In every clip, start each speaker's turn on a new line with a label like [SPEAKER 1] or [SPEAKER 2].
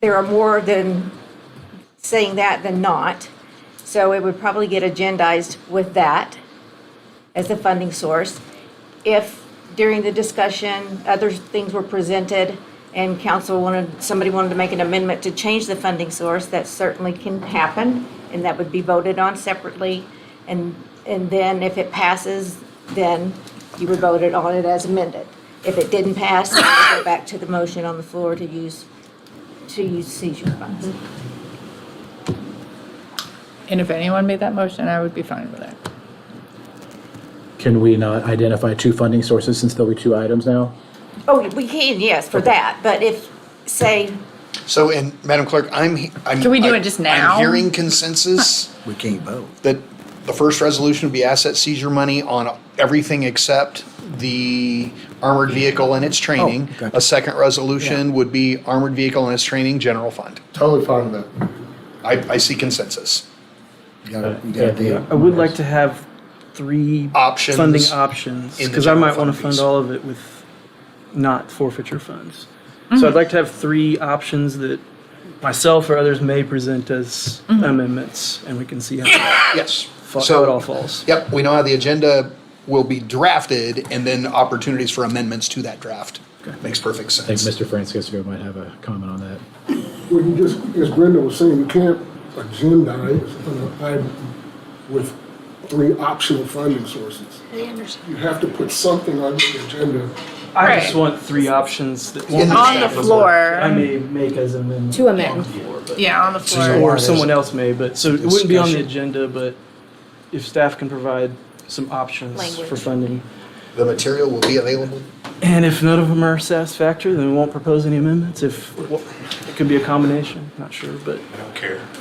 [SPEAKER 1] there are more than saying that than not. So it would probably get agendized with that as a funding source. If during the discussion, other things were presented and council wanted, somebody wanted to make an amendment to change the funding source, that certainly can happen and that would be voted on separately. And, and then if it passes, then you would vote it on it as amended. If it didn't pass, then you would go back to the motion on the floor to use, to use seizure funds.
[SPEAKER 2] And if anyone made that motion, I would be fine with it.
[SPEAKER 3] Can we not identify two funding sources since there'll be two items now?
[SPEAKER 1] Oh, we can, yes, for that, but if, say,
[SPEAKER 4] So, and Madam Clerk, I'm, he- I'm.
[SPEAKER 2] Can we do
[SPEAKER 4] I-
[SPEAKER 2] it just now?
[SPEAKER 4] I'm hearing consensus
[SPEAKER 5] We can't vote.
[SPEAKER 4] that the first resolution would be asset seizure money on everything except the armored vehicle and its training.
[SPEAKER 5] gotcha.
[SPEAKER 4] A second resolution would be armored vehicle and its training, general fund.
[SPEAKER 6] Totally fine with that.
[SPEAKER 4] I, I see consensus.
[SPEAKER 5] You gotta, you gotta
[SPEAKER 3] Yeah.
[SPEAKER 5] deal.
[SPEAKER 7] I would like to have three
[SPEAKER 4] Options
[SPEAKER 7] funding options
[SPEAKER 4] in the
[SPEAKER 7] because I might
[SPEAKER 4] general
[SPEAKER 7] want to
[SPEAKER 4] fund
[SPEAKER 7] fund
[SPEAKER 4] piece.
[SPEAKER 7] all of it with not forfeiture funds.
[SPEAKER 2] Mm-hmm.
[SPEAKER 7] So I'd like to have three options that myself or others may present as
[SPEAKER 2] Mm-hmm.
[SPEAKER 7] amendments, and we can see how,
[SPEAKER 4] Yes.
[SPEAKER 7] fa- how it all
[SPEAKER 4] So,
[SPEAKER 7] falls.
[SPEAKER 4] yep, we know how the agenda will be drafted and then opportunities for amendments to that draft. Makes perfect
[SPEAKER 3] I think
[SPEAKER 4] sense.
[SPEAKER 3] Mr. Francisco might have a comment on that.
[SPEAKER 6] Well, you just, as Brenda was saying, you can't agendize an item with three optional funding sources. You have to put something on the agenda.
[SPEAKER 7] I
[SPEAKER 2] Right.
[SPEAKER 7] just want three options that
[SPEAKER 4] In the
[SPEAKER 2] On the
[SPEAKER 4] Exactly.
[SPEAKER 2] floor.
[SPEAKER 7] I may make as amendments.
[SPEAKER 8] To amend.
[SPEAKER 2] Yeah, on the floor.
[SPEAKER 7] Or someone else may, but, so it wouldn't be on the
[SPEAKER 4] Discussion.
[SPEAKER 7] agenda, but if staff can provide some options for
[SPEAKER 1] Language.
[SPEAKER 7] funding.
[SPEAKER 4] The material will be available.
[SPEAKER 7] And if none of them are satisfactory, then we won't propose any amendments. If, it could be a combination, not sure, but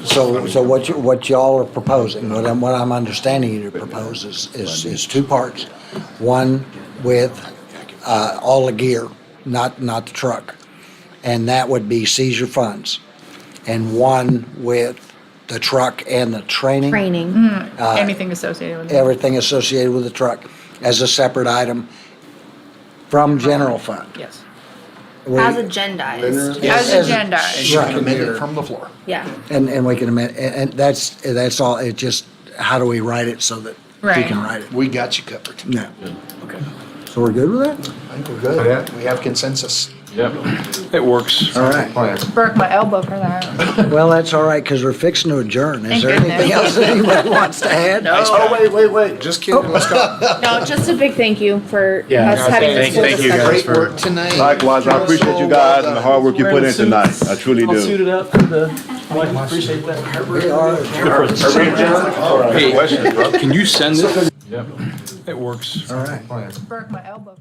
[SPEAKER 5] So, so what you, what y'all are proposing, what I'm, what I'm understanding you to propose is, is, is two parts. One with, uh, all the gear, not, not the truck. And that would be seizure funds. And one with the truck and the training.
[SPEAKER 8] Training.
[SPEAKER 2] Anything associated with it.
[SPEAKER 5] Everything associated with the truck as a separate item from general fund.
[SPEAKER 2] Yes.
[SPEAKER 5] We-
[SPEAKER 8] As agendized.
[SPEAKER 5] Yes.
[SPEAKER 2] As agenda.
[SPEAKER 4] And you can
[SPEAKER 5] Right.
[SPEAKER 4] amend it from the floor.
[SPEAKER 8] Yeah.
[SPEAKER 5] And, and we can amend, and, and that's, that's all, it just, how do we write it so that we
[SPEAKER 2] Right.
[SPEAKER 5] can write it?
[SPEAKER 4] We got you covered.
[SPEAKER 5] No. So we're good with that?
[SPEAKER 4] I think we're
[SPEAKER 9] Oh,
[SPEAKER 4] good. We have consensus.
[SPEAKER 9] It works.
[SPEAKER 5] All right.
[SPEAKER 6] Plan.
[SPEAKER 2] Broke my elbow for that.
[SPEAKER 5] Well, that's all right, because we're fixing to adjourn.
[SPEAKER 2] Thank
[SPEAKER 5] Is there anything
[SPEAKER 2] goodness.
[SPEAKER 5] else that anybody wants to add?
[SPEAKER 6] Oh, wait, wait, wait, just kidding,
[SPEAKER 9] Oh,
[SPEAKER 6] let's go.
[SPEAKER 8] No, just a big thank you for
[SPEAKER 3] Yeah.
[SPEAKER 8] us having this
[SPEAKER 9] Thank- thank you
[SPEAKER 8] discussion.
[SPEAKER 9] guys.
[SPEAKER 4] Great work tonight.
[SPEAKER 9] Likewise, I appreciate you guys and the hard work you put in tonight. I truly
[SPEAKER 7] All suited
[SPEAKER 9] do.
[SPEAKER 7] up for the, I appreciate that.
[SPEAKER 5] We are.
[SPEAKER 9] Hey,
[SPEAKER 10] Can you send this? It works.
[SPEAKER 5] All right.
[SPEAKER 2] Broke my elbow.